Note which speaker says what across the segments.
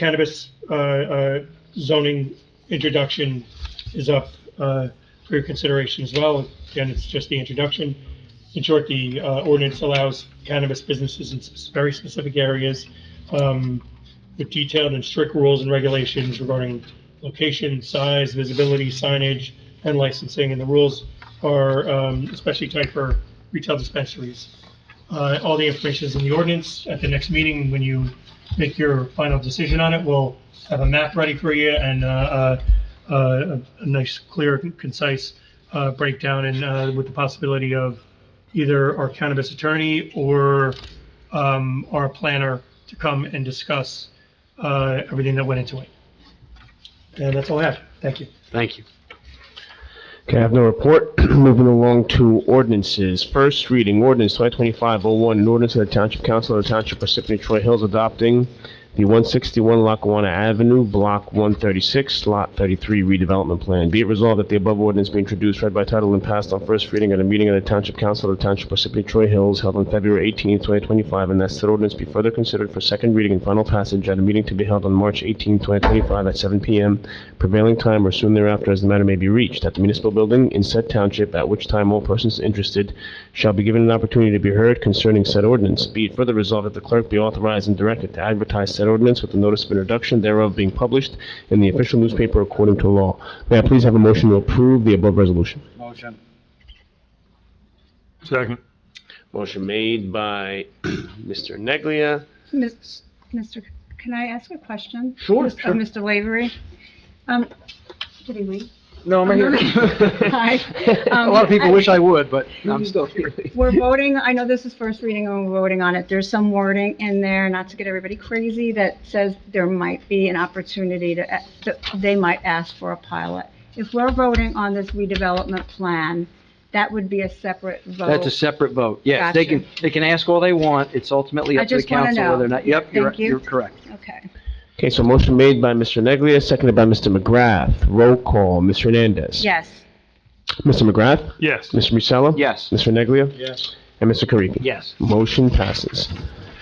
Speaker 1: cannabis uh, uh, zoning introduction is up uh, for your consideration as well. Again, it's just the introduction. In short, the uh, ordinance allows cannabis businesses in s- very specific areas um, with detailed and strict rules and regulations regarding location, size, visibility, signage, and licensing. And the rules are um, especially tight for retail dispensaries. Uh, All the information is in the ordinance. At the next meeting, when you make your final decision on it, we'll have a map ready for you and uh, uh, uh, a nice, clear, concise uh, breakdown and uh, with the possibility of either our cannabis attorney or um, our planner to come and discuss uh, everything that went into it. And that's all I have. Thank you.
Speaker 2: Thank you.
Speaker 3: Okay, I have no report. Moving along to ordinances. First reading, ordinance 2025-01, an ordinance of the Township Council of the Township Parsippany Troy Hills adopting the 161 Lackawanna Avenue, Block 136, Lot 33 redevelopment plan. Be it resolved that the above ordinance be introduced, read by title, and passed on first reading at a meeting of the Township Council of the Township Parsippany Troy Hills held on February 18, 2025, and that said ordinance be further considered for second reading and final passage at a meeting to be held on March 18, 2025, at 7 p.m prevailing time or soon thereafter as the matter may be reached at the municipal building in said township, at which time all persons interested shall be given an opportunity to be heard concerning said ordinance. Be it further resolved that the clerk be authorized and directed to advertise said ordinance with the notice of introduction thereof being published in the official newspaper according to law. May I please have a motion to approve the above resolution?
Speaker 2: Motion.
Speaker 4: Second.
Speaker 3: Motion made by Mr. Neglia.
Speaker 5: Mis- Mr., can I ask a question?
Speaker 3: Sure,
Speaker 5: Mis- of
Speaker 3: sure.
Speaker 5: Mr. Lavery? Um, did he leave?
Speaker 4: No, I'm here.
Speaker 5: Hi.
Speaker 4: A lot of people
Speaker 5: Um,
Speaker 4: wish I would, but I'm still here.
Speaker 5: We're voting, I know this is first reading and we're voting on it. There's some wording in there, not to get everybody crazy, that says there might be an opportunity to, a- that they might ask for a pilot. If we're voting on this redevelopment plan, that would be a separate vote.
Speaker 2: That's a separate vote. Yes, they can, they can ask all they want. It's ultimately
Speaker 5: I
Speaker 2: up to the
Speaker 5: just wanna
Speaker 2: council
Speaker 5: know.
Speaker 2: whether or not, yep, you're,
Speaker 5: Thank you.
Speaker 2: you're correct.
Speaker 5: Okay.
Speaker 3: Okay, so motion made by Mr. Neglia, seconded by Mr. McGrath. Roll call, Ms. Hernandez.
Speaker 5: Yes.
Speaker 3: Mr. McGrath?
Speaker 4: Yes.
Speaker 3: Mr. Musella?
Speaker 2: Yes.
Speaker 3: Mr. Neglia?
Speaker 4: Yes.
Speaker 3: And Mr. Karifi.
Speaker 2: Yes.
Speaker 3: Motion passes.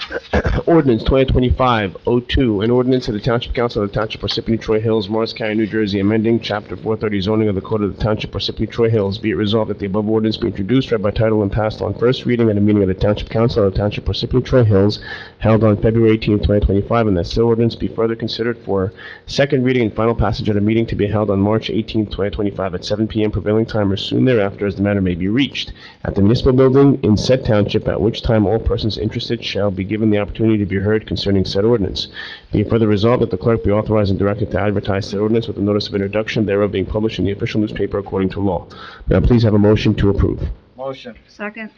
Speaker 3: Ordinance 2025-02, an ordinance of the Township Council of the Township Parsippany Troy Hills, Morris County, New Jersey, amending Chapter 430 zoning of the Code of the Township Parsippany Troy Hills. Be it resolved that the above ordinance be introduced, read by title, and passed on first reading at a meeting of the Township Council of the Township Parsippany Troy Hills held on February 18, 2025, and that said ordinance be further considered for second reading and final passage at a meeting to be held on March 18, 2025, at 7 p.m. prevailing time or soon thereafter as the matter may be reached at the municipal building in said township, at which time all persons interested shall be given the opportunity to be heard concerning said ordinance. Be it further resolved that the clerk be authorized and directed to advertise said ordinance with a notice of introduction thereof being published in the official newspaper according to law. May I please have a motion to approve?
Speaker 2: Motion.
Speaker 5: Second?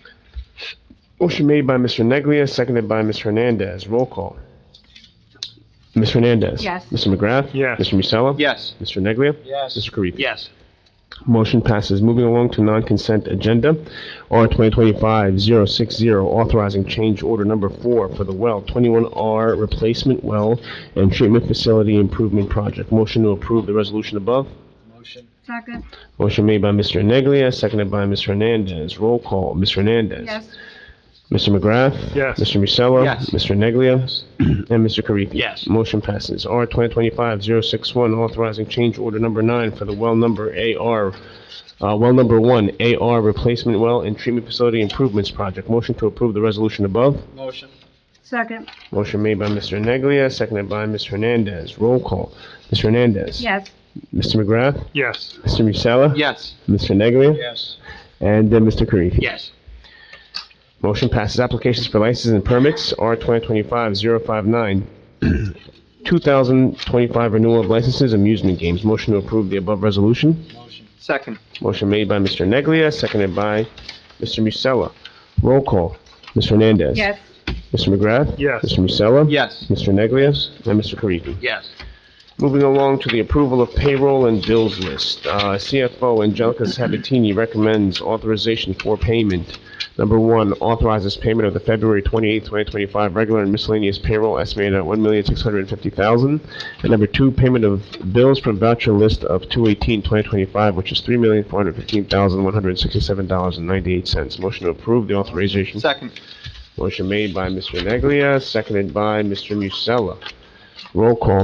Speaker 3: Motion made by Mr. Neglia, seconded by Ms. Hernandez. Roll call. Ms. Hernandez.
Speaker 5: Yes.
Speaker 3: Mr. McGrath.
Speaker 4: Yes.
Speaker 3: Mr. Musella.
Speaker 2: Yes.
Speaker 3: Mr. Neglia.
Speaker 2: Yes.
Speaker 3: Mr. Karifi.
Speaker 2: Yes.
Speaker 3: Motion passes. Moving along to non-consent agenda. R 2025-060, oh, authorizing change order number four for the well 21R replacement well and treatment facility improvement project. Motion to approve the resolution above.
Speaker 2: Motion.
Speaker 5: Second?
Speaker 3: Motion made by Mr. Neglia, seconded by Ms. Hernandez. Roll call. Ms. Hernandez.
Speaker 5: Yes.
Speaker 3: Mr. McGrath?
Speaker 4: Yes.
Speaker 3: Mr. Musella?
Speaker 2: Yes.
Speaker 3: Mr. Neglia? And Mr. Karifi?
Speaker 2: Yes.
Speaker 3: Motion passes. R 2025-061, authorizing change order number nine for the well number AR, uh, well number one, AR replacement well and treatment facility improvements project. Motion to approve the resolution above.
Speaker 2: Motion.
Speaker 5: Second?
Speaker 3: Motion made by Mr. Neglia, seconded by Ms. Hernandez. Roll call. Ms. Hernandez?
Speaker 5: Yes.
Speaker 3: Mr. McGrath?
Speaker 4: Yes.
Speaker 3: Mr. Musella?
Speaker 2: Yes.
Speaker 3: Mr. Neglia?
Speaker 2: Yes.
Speaker 3: And then Mr. Karifi?
Speaker 2: Yes.
Speaker 3: Motion passes. Applications for licenses and permits R 2025-059, 2025 renewal of licenses, amusement games. Motion to approve the above resolution.
Speaker 2: Motion. Second.
Speaker 3: Motion made by Mr. Neglia, seconded by Mr. Musella. Roll call. Ms. Hernandez.
Speaker 5: Yes.
Speaker 3: Mr. McGrath.
Speaker 4: Yes.
Speaker 3: Mr. Musella.
Speaker 2: Yes.
Speaker 3: Mr. Neglia. And Mr. Karifi.
Speaker 2: Yes.
Speaker 3: Moving along to the approval of payroll and bills list. Uh, CFO Angelica Sabatini recommends authorization for payment. Number one, authorizes payment of the February 28, 2025 regular and miscellaneous payroll estimated at $1,650,000. And number two, payment of bills from voucher list of 2/18/2025, which is $3,415,167.98. Motion to approve the authorization.
Speaker 2: Second.
Speaker 3: Motion made by Mr. Neglia, seconded by Mr. Musella. Roll call,